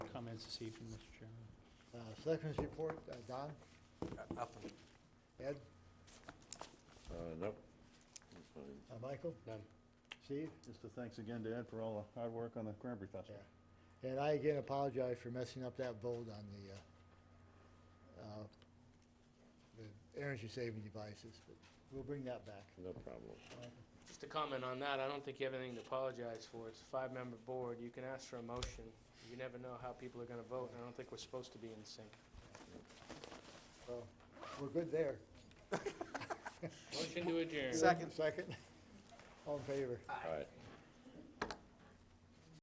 comments this evening, Mr. Chairman. Uh, Selectmen's report, uh, Don, uh, Nothing. Ed, Uh, nope. I'm fine. uh, Michael, None. Steve? Just a thanks again to Ed for all the hard work on the Cranberry Festival. Yeah. And I again apologize for messing up that vote on the, uh, uh, the energy-saving devices, but we'll bring that back. No problem. Just to comment on that, I don't think you have anything to apologize for. It's a five-member board. You can ask for a motion. You never know how people are gonna vote, and I don't think we're supposed to be in sync. So, we're good there. Motion to adjourn. Second. Second? All in favor? All right.